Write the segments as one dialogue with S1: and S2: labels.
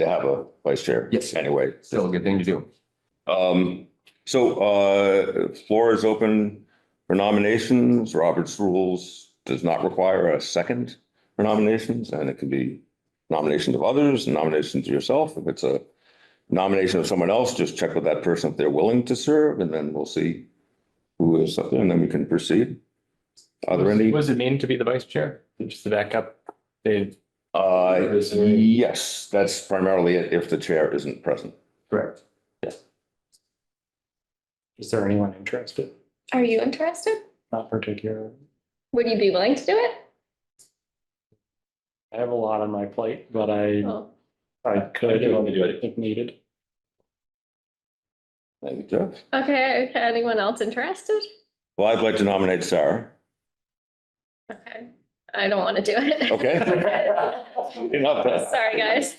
S1: to have a vice chair.
S2: Yes.
S1: Anyway,
S2: Still a good thing to do.
S1: um, so, uh, floor is open for nominations. Robert's rules does not require a second for nominations, and it can be nominations of others, nominations of yourself. If it's a nomination of someone else, just check with that person if they're willing to serve, and then we'll see who is up there, and then we can proceed. Are there any?
S3: What does it mean to be the vice chair? Just to back up, Dave.
S1: Uh,
S3: Is there-
S1: yes, that's primarily it if the chair isn't present.
S3: Correct. Yes. Is there anyone interested?
S4: Are you interested?
S3: Not particularly.
S4: Would you be willing to do it?
S3: I have a lot on my plate, but I,
S4: Oh,
S3: I could. want to do it. If needed.
S1: Thank you, Jeff.
S4: Okay, anyone else interested?
S1: Well, I'd like to nominate Sarah.
S4: Okay, I don't want to do it.
S1: Okay. Enough.
S4: Sorry, guys.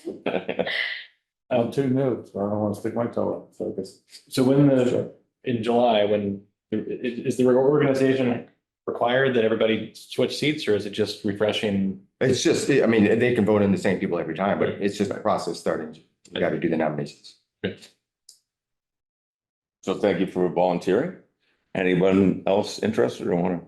S3: I'm too new, so I don't want to stick my toe in focus. So when the, in July, when, i- i- is the organization required that everybody switch seats or is it just refreshing?
S2: It's just, I mean, they can vote in the same people every time, but it's just a process starting. You got to do the nominations.
S1: So thank you for volunteering. Anyone else interested or want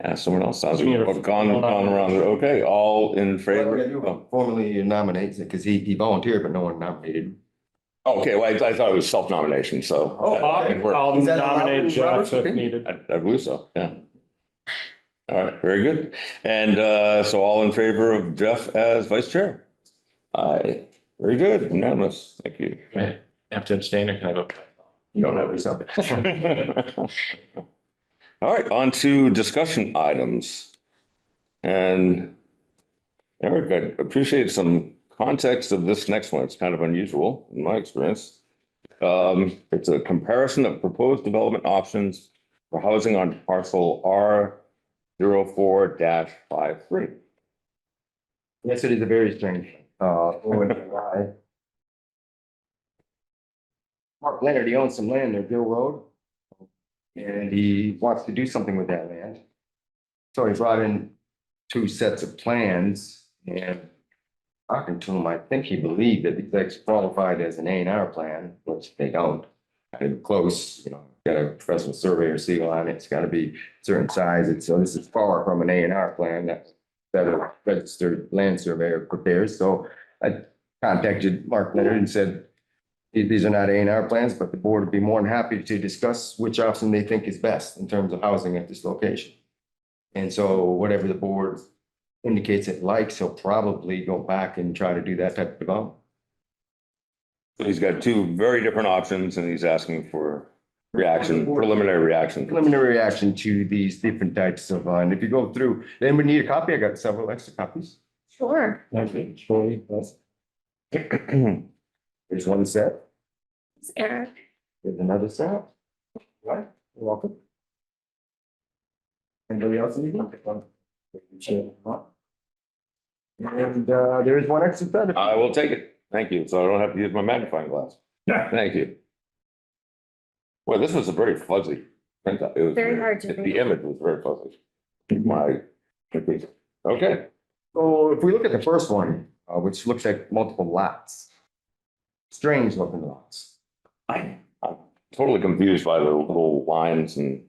S1: to ask someone else? Sounds like we've gone, gone around. Okay, all in favor? Oh,
S2: Formally nominates it because he, he volunteered, but no one nominated.
S1: Oh, Okay, well, I I thought it was self-nomination, so.
S3: Oh,
S1: I think we're-
S3: I'll
S2: Is that allowed,
S3: nominate Jeff if
S2: Robert?
S3: needed.
S1: I I believe so, yeah. All right, very good. And uh, so all in favor of Jeff as vice chair? Aye, very good, unanimous, thank you.
S3: I Have to abstain or can I vote?
S2: You don't know yourself.
S1: All right, on to discussion items. And Eric, I appreciate some context of this next one. It's kind of unusual in my experience. Um, It's a comparison of proposed development options for housing on parcel R 4 five three.
S2: Yes, it is a very strange, uh, when July. Mark Leonard, he owns some land near Bill Road. And he wants to do something with that land. So he brought in two sets of plans and talking to him, I think he believed that these things qualified as an A and R plan, which they don't. Not even close, you know, got a professional surveyor seal on it, it's gotta be certain size, and so this is far from an A and R plan that that a registered land surveyor prepares, so I contacted Mark Leonard and said, "These- these are not A and R plans, but the board would be more than happy to discuss which option they think is best in terms of housing at this location. And so whatever the board indicates it likes, he'll probably go back and try to do that type of development.
S1: So he's got two very different options and he's asking for reaction, preliminary reaction.
S2: Preliminary reaction to these different types of, uh, and if you go through, then we need a copy, I got several extra copies.
S4: Sure.
S2: There's one set,
S4: It's Eric.
S2: there's another set. Right, you're welcome. Anybody else need one? And uh, there is one extra set.
S1: I will take it. Thank you. So I don't have to use my magnifying glass. Thank you. Well, this was a very fuzzy printout. It was
S4: Very hard to read.
S1: The image was very fuzzy. My, okay,
S2: So if we look at the first one, uh, which looks like multiple lots. Strange looking lots.
S1: totally confused by the little lines and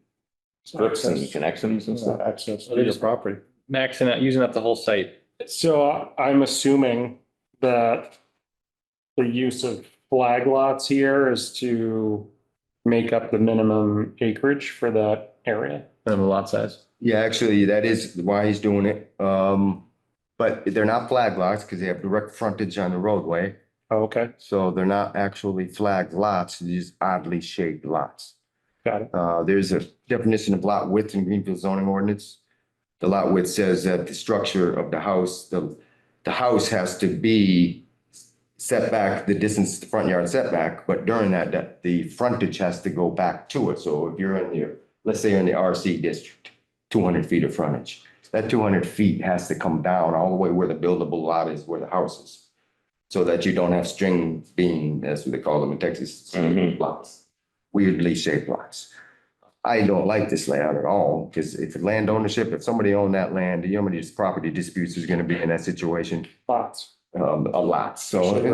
S1: strips and connections and stuff.
S5: access
S3: to your
S5: property.
S3: Maxing out, using up the whole site.
S5: So I- I'm assuming that the use of flag lots here is to make up the minimum acreage for that area.
S3: Minimum lot size.
S2: Yeah, actually, that is why he's doing it. Um, but they're not flag lots because they have direct frontage on the roadway.
S5: Okay,
S2: So they're not actually flagged lots, these oddly shaped lots.
S5: got it.
S2: Uh, there's a definition of lot width in Greenfield zoning ordinance. The lot width says that the structure of the house, the, the house has to be set back the distance, the front yard setback, but during that, that the frontage has to go back to it. So if you're in your, let's say you're in the RC district, two hundred feet of frontage, that two hundred feet has to come down all the way where the buildable lot is, where the house is. So that you don't have string bean, that's what they call them in Texas,
S1: Mhm.
S2: lots, weirdly shaped lots. I don't like this layout at all, because if land ownership, if somebody owned that land, the how many property disputes is gonna be in that situation?
S5: Lots.
S2: Um, a lot, so.